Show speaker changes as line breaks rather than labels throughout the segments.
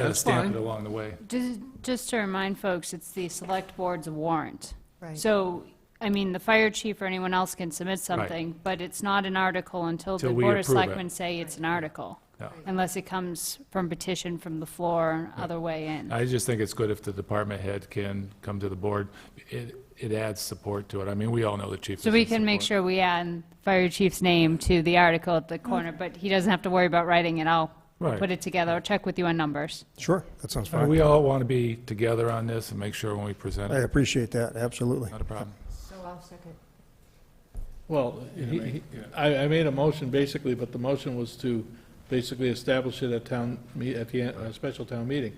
Gotta
That's
stamp
fine.
it along the way.
Just, just to remind folks, it's the select board's warrant.
Right.
So, I mean, the fire chief or anyone else can submit something, but it's not an article until the
Till we
board of
approve it.
selectmen say it's an article.
Yeah.
Unless it comes from petition from the floor and other way in.
I just think it's good if the department head can come to the board. It, it adds support to it. I mean, we all know the chief.
So
is
we
in
can make
support.
sure we add fire chief's name to the article at the corner, but he doesn't have to worry about writing it. I'll
Right.
put it together, I'll check with you on numbers.
Sure, that sounds
Uh,
fine.
We all want to be together on this and make sure when we present
I
it,
appreciate that, absolutely.
not a problem.
So I'll second.
Well, he- he- I, I made a motion basically, but the motion was to basically establish it at town, me- at the, a special town meeting.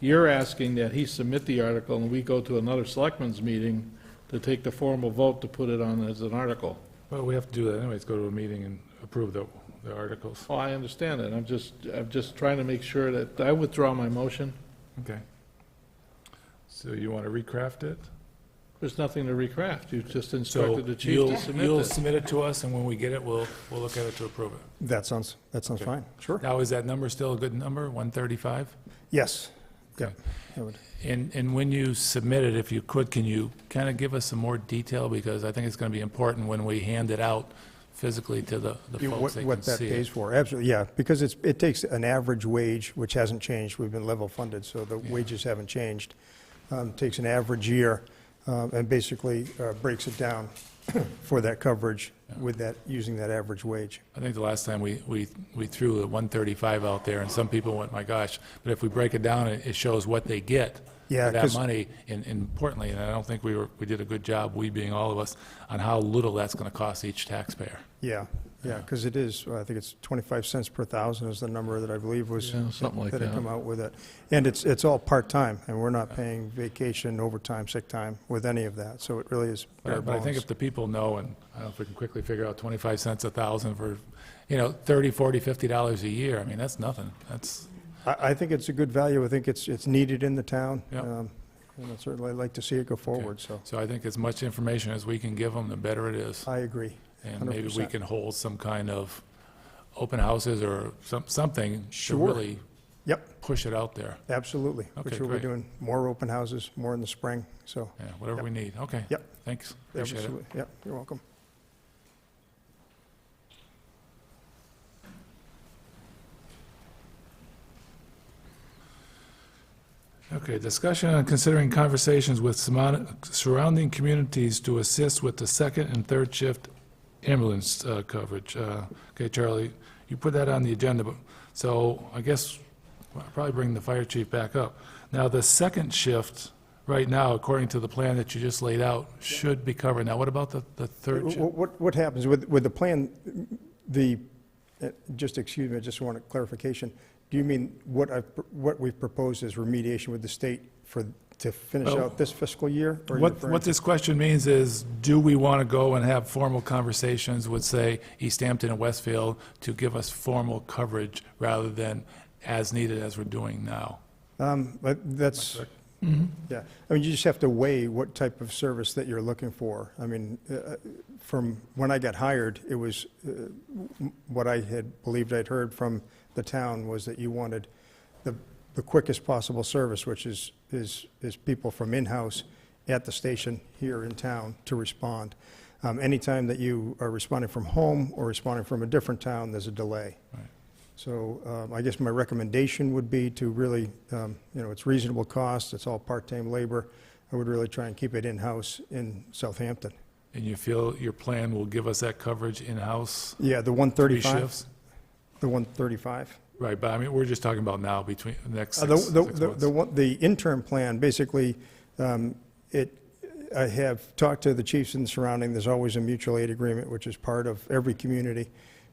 You're asking that he submit the article and we go to another selectmen's meeting to take the formal vote to put it on as an article.
Well, we have to do that anyways, go to a meeting and approve the, the articles.
Well, Oh, I understand that. I'm just, I'm just trying to make sure that, I withdraw my motion.
Okay. So you want to recraft it?
There's nothing to recraft. You just
So
instructed the chief
you'll-
to submit
You'll
this.
submit it to us, and when we get it, we'll, we'll look at it to approve it.
That sounds, that sounds fine, sure.
Now, is that number still a good number, 135?
Yes, yeah.
Okay.
that would-
And, and when you submit it, if you could, can you kind of give us some more detail? Because I think it's going to be important when we hand it out physically to the the
you-
folks
What
that can
what that
see
pays
it.
for, absolutely, yeah, because it's, it takes an average wage, which hasn't changed, we've been level funded, so the wages haven't changed. Um, Takes an average year um, and basically uh, breaks it down for that coverage with that, using that average wage.
I think the last time we, we, we threw the 135 out there, and some people went, my gosh, but if we break it down, it it shows what they get
Yeah,
for that
'cause-
money, and and importantly, and I don't think we were, we did a good job, we being all of us, on how little that's going to cost each taxpayer.
Yeah, yeah, because it is, I think it's 25 cents per thousand is the number that I believe was.
Yeah, something like
That
that.
had come out with it. And it's, it's all part-time, and we're not paying vacation, overtime, sick time with any of that, so it really is bare
But but I think
bones.
if the people know, and I don't know if we can quickly figure out 25 cents a thousand for, you know, 30, 40, 50 dollars a year, I mean, that's nothing. That's,
I, I think it's a good value, I think it's, it's needed in the town.
Yeah.
um, And I'd certainly like to see it go forward, so
so I think as much information as we can give them, the better it is.
I agree.
And maybe we
100%.
can hold some kind of open houses or some, something to
Sure.
really
Yep,
push it out there.
absolutely.
Okay,
For sure, we're
great.
doing more open houses, more in the spring, so.
Yeah, whatever we need. Okay.
Yep.
Thanks. Appreciate it.
absolutely. Yep, you're welcome.
Okay, discussion on considering conversations with surmon- surrounding communities to assist with the second and third shift ambulance uh, coverage. Uh, Okay, Charlie, you put that on the agenda, but, so I guess I'll probably bring the fire chief back up. Now, the second shift, right now, according to the plan that you just laid out, should be covered. Now, what about the, the third
Wh-
shift?
wh- What, what happens with, with the plan, the, uh, just excuse me, I just want a clarification. Do you mean what I, what we've proposed is remediation with the state for, to finish
Well,
out this fiscal year? or are you
What,
referring
what
to-
this question means is, do we want to go and have formal conversations with, say, East Hampton and Westfield to give us formal coverage rather than as needed as we're doing now?
Um, but that's, yeah, I mean, you just have to weigh what type of service that you're looking for. I mean, uh, from when I got hired, it was, uh, m- what I had believed I'd heard from the town was that you wanted the, the quickest possible service, which is, is, is people from in-house at the station here in town to respond. Um, anytime that you are responding from home or responding from a different town, there's a delay. So um, I guess my recommendation would be to really, um, you know, it's reasonable cost, it's all part-time labor. I would really try and keep it in-house in Southampton.
And you feel your plan will give us that coverage in-house?
Yeah, the
three
135,
shifts?
the 135.
Right, but I mean, we're just talking about now between the next
Uh,
six
The,
six
the- the,
months.
the one- the interim plan, basically, um, it, I have talked to the chiefs in the surrounding, there's always a mutual aid agreement, which is part of every community.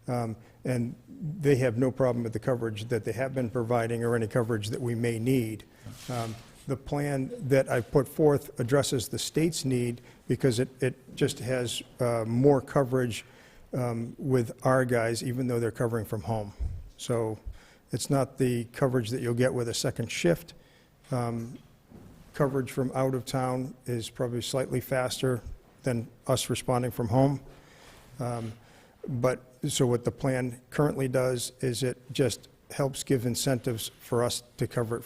Um, And they have no problem with the coverage that they have been providing or any coverage that we may need. Um, The plan that I put forth addresses the state's need because it, it just has uh, more coverage um, with our guys, even though they're covering from home. So it's not the coverage that you'll get with a second shift. Um, Coverage from out of town is probably slightly faster than us responding from home. Um, But, so what the plan currently does is it just helps give incentives for us to cover it